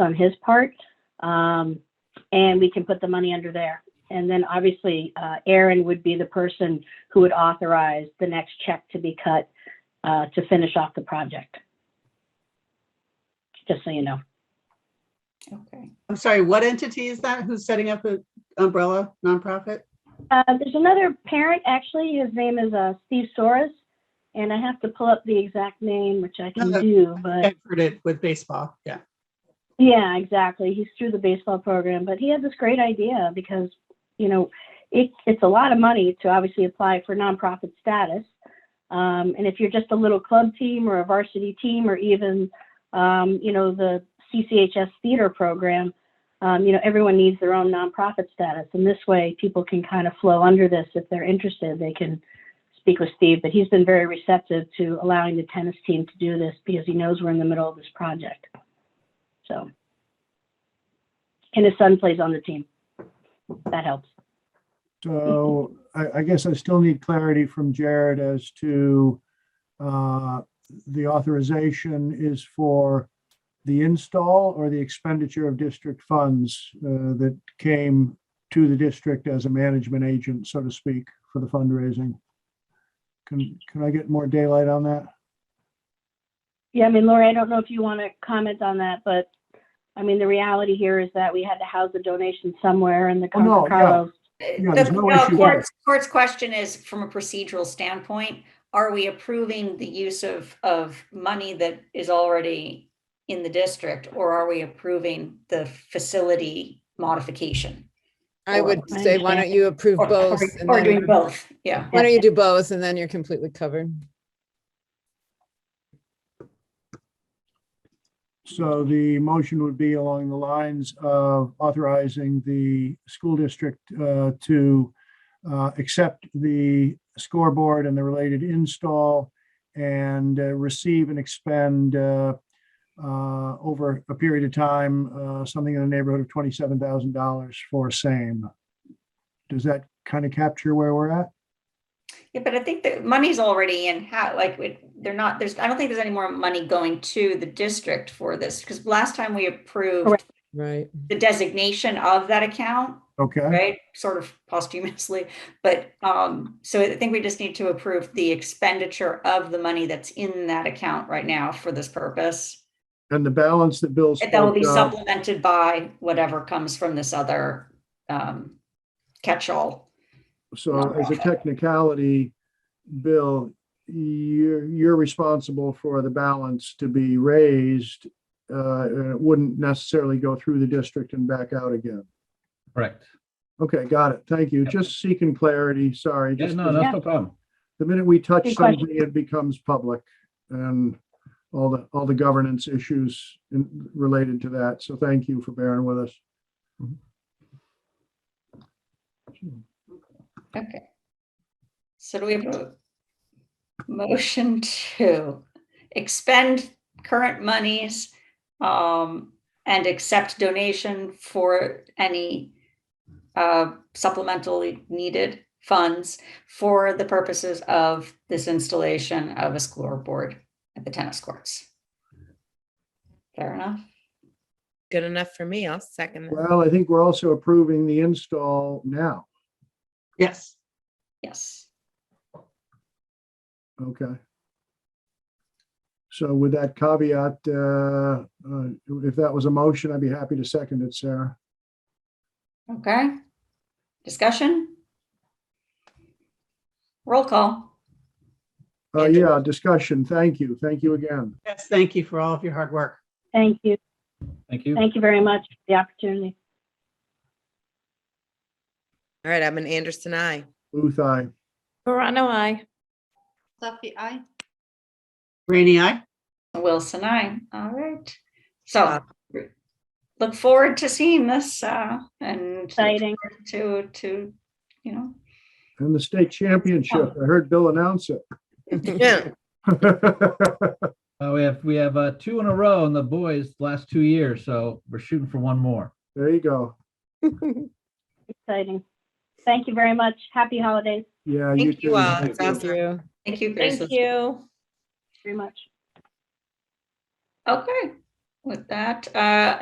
on his part. Um, and we can put the money under there. And then obviously, uh, Aaron would be the person who would authorize the next check to be cut, uh, to finish off the project. Just so you know. Okay. I'm sorry, what entity is that? Who's setting up the umbrella nonprofit? Uh, there's another parent, actually, his name is, uh, Steve Soros. And I have to pull up the exact name, which I can No, do, but. I've heard it with baseball. Yeah. Yeah, exactly. He's through the baseball program, but he had this great idea because, you know, it, it's a lot of money to obviously apply for nonprofit status. Um, and if you're just a little club team or a varsity team or even, um, you know, the CCHS theater program, um, you know, everyone needs their own nonprofit status. And this way, people can kind of flow under this if they're interested. They can speak with Steve, but he's been very receptive to allowing the tennis team to do this because he knows we're in the middle of this project. So. And his son plays on the team. That helps. So I, I guess I still need clarity from Jared as to uh, the authorization is for the install or the expenditure of district funds uh, that came to the district as a management agent, so to speak, for the fundraising. Can, can I get more daylight on that? Yeah, I mean, Lori, I don't know if you want to comment on that, but I mean, the reality here is that we had to house the donation somewhere and the Oh, no, Concord Carlos. Yeah, there's The- no no, issue Court's, court's question is, from a procedural standpoint, are we approving the use of, of money that is already in the district? Or are we approving the facility modification? I Or- would I say, why don't you approve Or, or both? and or then- doing both, yeah. Why don't you do both and then you're completely covered? So the motion would be along the lines of authorizing the school district uh, to uh, accept the scoreboard and the related install and uh, receive and expend uh, uh, over a period of time, uh, something in the neighborhood of $27,000 for same. Does that kind of capture where we're at? Yeah, but I think the money's already in how, like, we- they're not, there's, I don't think there's any more money going to the district for this. Because last time we approved Correct. Right. the designation of that account, Okay, right? Sort of posthumously, but um, so I think we just need to approve the expenditure of the money that's in that account right now for this purpose. and the balance that Bill. And That will be spoke of- supplemented by whatever comes from this other um, catch-all. So as a technicality, Bill, you're, you're responsible for the balance to be raised. uh, And it wouldn't necessarily go through the district and back out again. Correct. Okay, got it. Thank you. Yep. Just seeking clarity, sorry. Yeah, Just no, that's no problem. The minute we touch Good question. something, it becomes public and all the, all the governance issues in- related to that. So thank you for bearing with us. Okay. So do we have a motion to expend current monies um, and accept donation for any uh, supplementally needed funds for the purposes of this installation of a scoreboard at the tennis courts? Fair enough. Good enough for me. I'll second that. Well, I think we're also approving the install now. Yes. Yes. Okay. So with that caveat, uh, uh, if that was a motion, I'd be happy to second it, Sarah. Okay. Discussion? Roll call. Uh, yeah, discussion. Thank you. Thank you again. Yes. Thank you for all of your hard work. Thank you. Thank you. Thank you very much for the opportunity. All right, I'm an Anderson, I. Booth, aye. Rainy eye. Wilson, I. All right. So look forward to seeing this uh, and look Exciting. forward to, to, you know, And the state championship. I heard Bill announce it. Yeah. Uh, we have, we have, uh, two in a row in the boys last two years, so we're shooting for one more. There you go. Exciting. Thank you very much. Happy holidays. Yeah. Thank you too. all. It's Thank awesome. you. thank you, Grace. That's- you. Very much. Okay. With that, uh,